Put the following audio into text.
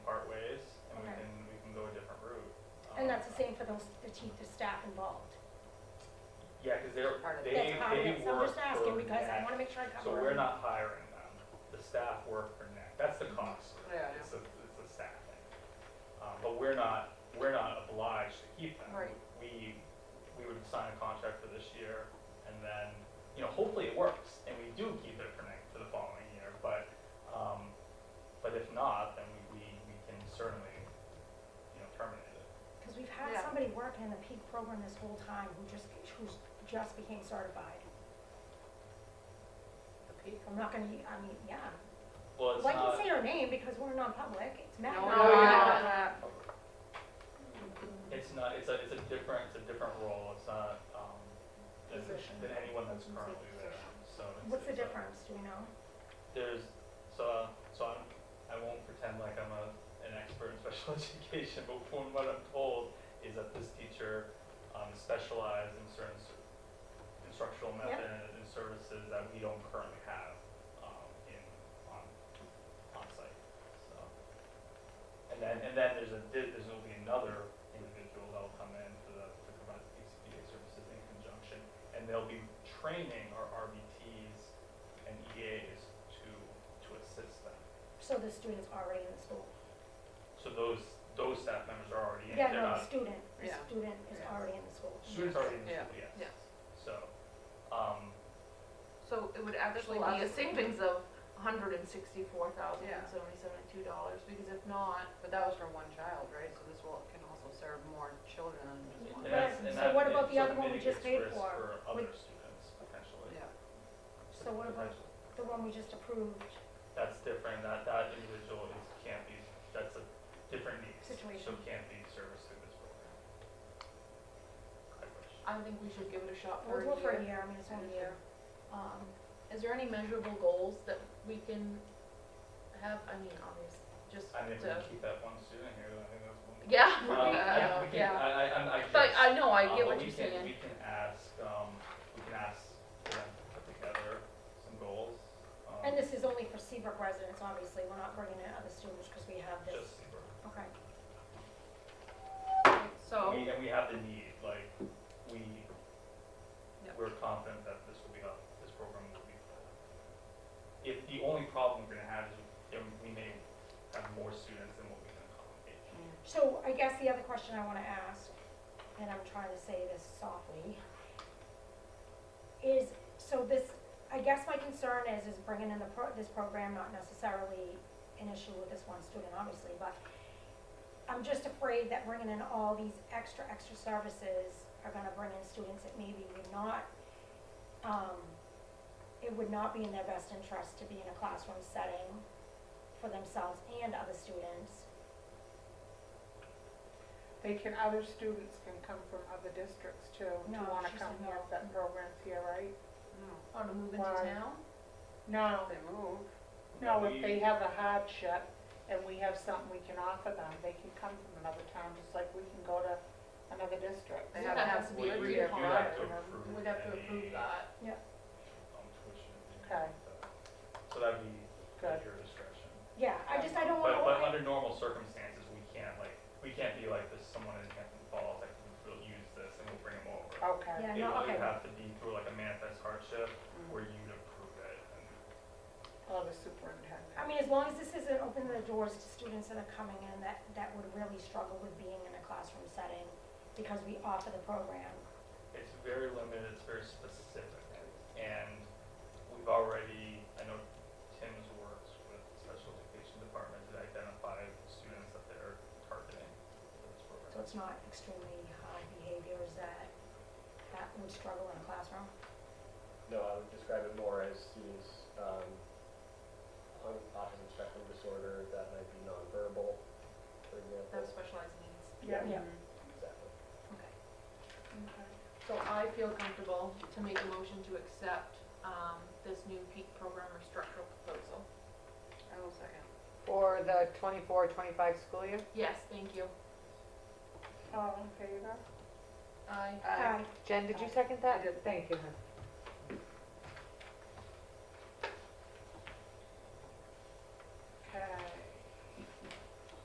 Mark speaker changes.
Speaker 1: Um,
Speaker 2: saying for those, the chief, the staff involved.
Speaker 1: Yeah, because they're,
Speaker 3: Part of it.
Speaker 1: they,
Speaker 2: That's part of
Speaker 1: they
Speaker 2: it, so I'm
Speaker 1: work
Speaker 2: just
Speaker 1: for
Speaker 2: asking because I
Speaker 1: NAC.
Speaker 2: wanna make sure I cover.
Speaker 1: So we're
Speaker 2: everything.
Speaker 1: not hiring them. The staff work for NAC. That's
Speaker 2: Mm-hmm.
Speaker 1: the cost.
Speaker 3: Yeah, I know.
Speaker 1: It's a, it's a staff thing. Um, but we're not, we're not obliged to keep them.
Speaker 3: Right.
Speaker 1: We, we would sign a contract for this year and then, you know, hopefully it works and we do keep it for next, for the following year. But, um, but if not, then we, we, we can certainly, you know, terminate it.
Speaker 2: Cause we've had
Speaker 3: Yeah.
Speaker 2: somebody working in the peak program this whole time who just, who's just became certified.
Speaker 3: The peak.
Speaker 2: I'm not gonna, e, I mean, yeah.
Speaker 1: Well, it's
Speaker 2: Well, I
Speaker 1: not,
Speaker 2: can say her name because we're non-public, it's Matt.
Speaker 3: No, no,
Speaker 4: No, you're
Speaker 3: no.
Speaker 1: it's not, it's a, it's a different, it's a different role. It's not, um, than,
Speaker 3: Position.
Speaker 1: than anyone that's currently there. So it's-
Speaker 2: What's the
Speaker 1: it's a-
Speaker 2: difference, do we know?
Speaker 1: there's so so I'm, I won't pretend like I'm a, an expert in special education, but from what I'm told is that this teacher um, specialized in certain s- instructional
Speaker 2: Yeah.
Speaker 1: methods and services that we don't currently have um, in on on site. So and then and then there's a there- there's going to be another individual that will come in for the to provide the PCBA services in conjunction, and they'll be training our RBTs and EAs to, to assist them.
Speaker 2: So the student's already in the school.
Speaker 1: So those, those staff members are already in,
Speaker 2: Yeah,
Speaker 1: they're
Speaker 2: no, the
Speaker 1: not,
Speaker 2: student, the
Speaker 3: Yeah.
Speaker 2: student is
Speaker 3: Yeah.
Speaker 2: already in the school.
Speaker 1: students are already in the
Speaker 3: Yeah,
Speaker 1: school, yes.
Speaker 4: yeah.
Speaker 1: So, um,
Speaker 4: So it would actually
Speaker 3: That's a lot
Speaker 4: be a
Speaker 3: of-
Speaker 4: savings of hundred and sixty-four thousand and seventy-seven dollars, because if not,
Speaker 3: But that was for one child, right? So this will, can also serve more children than just
Speaker 1: and
Speaker 3: one.
Speaker 2: But-
Speaker 1: that's, and that,
Speaker 2: so what
Speaker 1: it
Speaker 2: about the
Speaker 1: sort
Speaker 2: other
Speaker 1: of
Speaker 2: one we just
Speaker 1: mitigates
Speaker 2: paid
Speaker 1: risk
Speaker 2: for?
Speaker 1: for
Speaker 2: Would-
Speaker 1: other students, potentially.
Speaker 3: Yeah.
Speaker 2: So what about
Speaker 1: Potentially.
Speaker 2: the one we just approved?
Speaker 1: That's different, that, that individual is, can't be, that's a different needs. So
Speaker 2: Situation.
Speaker 1: can't be serviced through this program. I wish.
Speaker 4: I think we should give it a shot for
Speaker 2: We'll do it for a
Speaker 4: a year.
Speaker 2: year, I mean, it's only a year. Um,
Speaker 4: Is there any measurable goals that we can have, I mean, obvious, just
Speaker 1: I mean, if we
Speaker 4: to,
Speaker 1: can keep that one student here, I think that's one.
Speaker 4: yeah,
Speaker 1: Um,
Speaker 4: yeah,
Speaker 1: we can-
Speaker 4: yeah.
Speaker 1: I, I, I'm- I guess.
Speaker 4: But I know, I
Speaker 1: Uh, but
Speaker 4: get what
Speaker 1: we
Speaker 4: you're
Speaker 1: can-
Speaker 4: saying.
Speaker 1: We can ask, um, we can ask them to put together some goals. um,
Speaker 2: And this is only for Seabrook residents, obviously, we're not bringing in other students because we have this.
Speaker 1: Just,
Speaker 2: Okay,
Speaker 1: and
Speaker 4: So,
Speaker 1: we, and we have the need, like, we,
Speaker 4: Yeah.
Speaker 1: we're confident that this will be up, this program will be full. If, the only problem we're gonna have is, you know, we may have more students than what we can accommodate.
Speaker 3: Mm.
Speaker 2: so I guess the other question I wanna ask, and I'm trying to say this softly, is, so this, I guess my concern is, is bringing in the pro, this program, not necessarily an issue with this one student, obviously, but I'm just afraid that bringing in all these extra, extra services are gonna bring in students that maybe would not, um, it would not be in their best interest to be in a classroom setting for themselves and other students.
Speaker 5: They can, other students can come from other districts too, to
Speaker 2: No,
Speaker 5: wanna
Speaker 2: she
Speaker 5: come
Speaker 2: said
Speaker 5: here
Speaker 2: no.
Speaker 5: if that program's here, right?
Speaker 3: No,
Speaker 4: on a oh, move into
Speaker 5: Why?
Speaker 4: town,
Speaker 5: No,
Speaker 3: they move.
Speaker 5: no,
Speaker 1: We-
Speaker 5: if they have a hardship and we have something we can offer them, they can come from another town, just like we can go to another district.
Speaker 3: They
Speaker 4: So
Speaker 3: have
Speaker 4: that
Speaker 3: to
Speaker 4: has
Speaker 3: have
Speaker 4: to
Speaker 1: we-
Speaker 4: be
Speaker 1: we-
Speaker 4: agreed
Speaker 1: we do
Speaker 4: upon.
Speaker 1: have to
Speaker 5: and, um,
Speaker 1: approve
Speaker 4: we'd have to
Speaker 1: any,
Speaker 4: approve that,
Speaker 1: um, tuition and
Speaker 5: Okay.
Speaker 1: that. So that'd be at
Speaker 5: Good.
Speaker 1: your discretion.
Speaker 2: Yeah, I just, I don't wanna,
Speaker 1: But, but
Speaker 2: I,
Speaker 1: under normal circumstances, we can't like, we can't be like, there's someone in Hampton Falls that can really use this and we'll bring them over.
Speaker 5: Okay,
Speaker 2: yeah,
Speaker 1: It
Speaker 2: no,
Speaker 1: would
Speaker 2: okay,
Speaker 1: have to be through like a manifest hardship where you'd approve it. and
Speaker 5: or the superintendent.
Speaker 2: I mean, as long as this isn't opening the doors to students that are coming in that, that would really struggle with being in a classroom setting because we offer the program.
Speaker 1: It's very limited, it's very specific. And we've already, I know Tim's works with the special education department to identify students that they're targeting for this
Speaker 2: So
Speaker 1: program.
Speaker 2: it's not extremely high behaviors that, that would struggle in a classroom.
Speaker 6: No, I would describe it more as students um, on autism spectrum disorder that might be nonverbal, for example.
Speaker 4: those specialized needs.
Speaker 5: Yeah.
Speaker 2: Yeah.
Speaker 6: Exactly.
Speaker 4: Okay. So I feel comfortable to make a motion to accept, um, this new peak program or structural proposal.
Speaker 3: I will second.
Speaker 7: For the 24-25 school year?
Speaker 4: Yes, thank you.
Speaker 5: All in favor?
Speaker 4: I,
Speaker 3: Aye.
Speaker 2: Hi,
Speaker 7: Jen, did you second that? Thank you, hon.